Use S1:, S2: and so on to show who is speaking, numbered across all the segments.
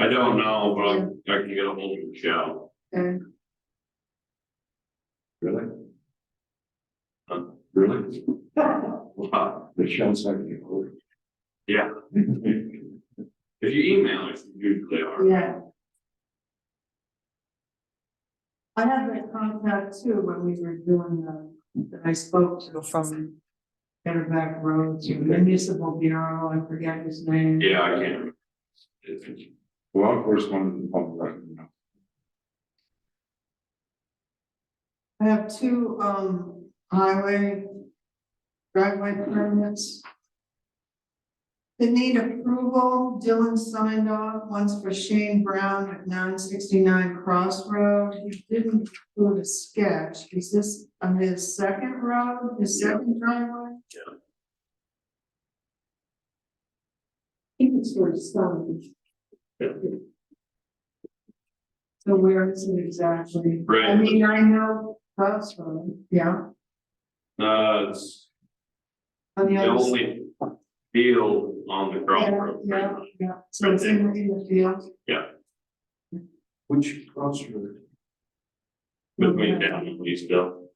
S1: don't know, but I'm- I can get a hold of Michelle.
S2: Okay.
S3: Really?
S1: Huh?
S3: Really?
S1: Wow.
S3: Michelle's not gonna get hold of
S1: Yeah,
S3: you.
S1: if you email us, usually are.
S2: Yeah. I had that contact too when we were doing the, that I spoke to from Better Back Road to Municipal Bureau, I forget his name.
S1: Yeah, I can. It's-
S3: Well, of course, one of them, oh, right, no.
S2: I have two, um, highway driveway permits. They need approval, Dylan signed off, one's for Shane Brown at nine sixty-nine Cross Road, he didn't include a sketch, is this on his second road, his
S1: Yeah.
S2: second driveway?
S1: Yeah.
S2: He can sort of start.
S1: Yeah.
S2: So where is it exactly? I
S1: Right.
S2: mean, I know Cross Road, yeah.
S1: Uh, it's
S2: On the
S1: the
S2: other side.
S1: only field on the crossroads.
S2: Yeah,
S1: right?
S2: yeah, yeah, so it's in, in the field.
S3: Which crossroad?
S1: Between down and Leesville.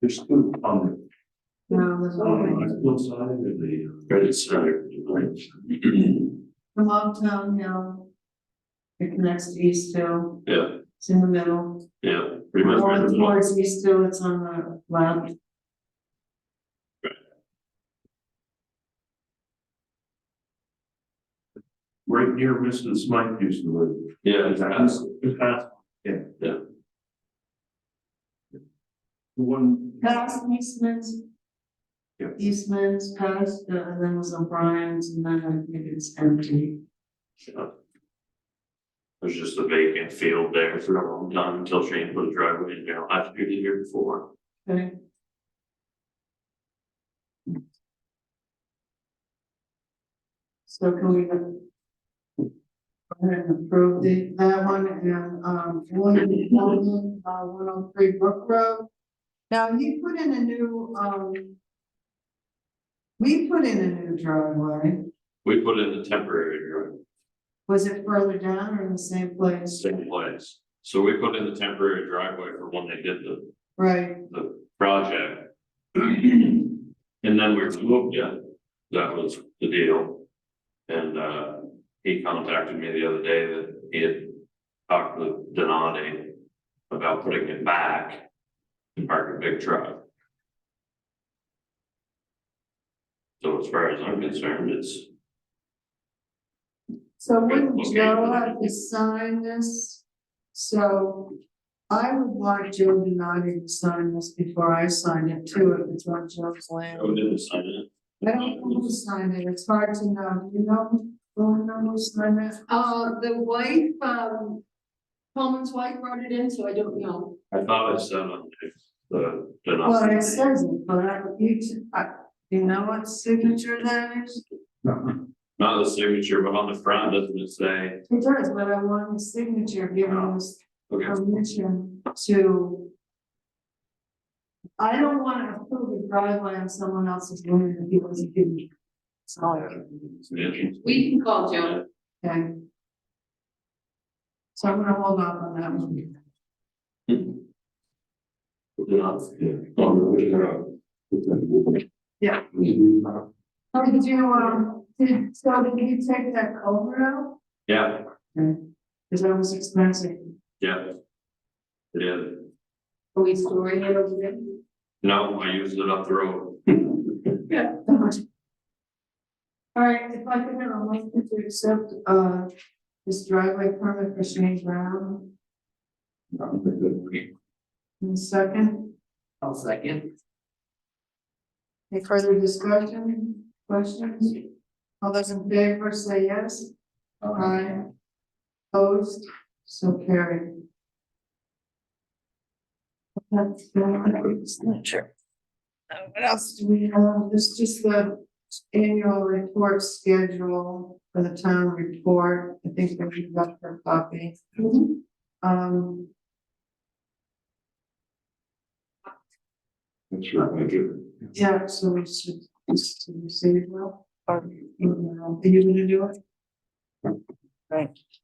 S3: There's two on the
S2: No, there's only,
S3: hillside of the. Credit center.
S2: the Longtown Hill. It connects to East Hill,
S1: Yeah,
S2: it's in the middle,
S1: yeah, pretty much.
S2: going
S1: right along.
S2: towards East Hill, it's on the left.
S3: Right near Mrs. Mike used to live.
S1: Yeah, exactly.
S3: Yeah.
S1: Yeah.
S3: The One.
S2: Past Eastman's.
S3: Yeah.
S2: Eastman's past, uh, and then was O'Brien's, and then I think it's empty.
S1: Yeah. There's just a vacant field there for a long time until Shane put a driveway in there last year, the year before.
S2: Okay, So can we go ahead and approve the, that one and, um, one in the building, uh, one oh three Brook Road? Now, he put in a new, um, we put in a new driveway.
S1: We put in a temporary driveway,
S2: Was it further down or in the same place?
S1: same place. So we put in the temporary driveway for when they did the,
S2: Right,
S1: the project. And then we removed it. That was the deal. And, uh, he contacted me the other day that he had talked with Donati about putting it back and parking big truck. So as far as I'm concerned, it's,
S2: so wouldn't
S1: Okay.
S2: Joe have to sign this? So I would want Joe Benardi to sign this before I sign it too, if it's on Joe's land.
S1: oh, didn't sign it.
S2: I don't know who signed it, it's hard to know, Do you know, don't know who signed it,
S4: Uh, the wife, um, Coleman's wife wrote it in, so I don't know.
S1: I thought I said on the- the
S2: well, it
S1: Donati.
S2: says it, but I, you, t- I, you know what signature that is?
S1: Not the signature, but on the front, doesn't it say,
S2: It does, but I want the signature given this
S1: okay,
S2: permission to. I don't wanna approve a driveway on someone else's land if he wasn't given. It's all right,
S1: yeah,
S4: We can call Joan.
S2: okay? So I'm gonna hold off on that one. Yeah. Oh, did you, um, did, so did you take that culvert out?
S1: yeah,
S2: Cause that was expensive.
S1: yeah. It is,
S4: Are we storing it over there?
S1: no, I used it up the road,
S2: All right, if I could have a motion to accept, uh, this driveway permit for Shane Brown, in a second.
S4: I'll second.
S2: Any further discussion, questions? All those in favor say yes. Aye. Opposed, so carried. That's, uh, Uh, What else do we have? This is just the annual report schedule for the town report. I think that we've got her copy. Um,
S3: That's right, I get it.
S2: yeah, so we should, should we say it well? Are you gonna do it? Right.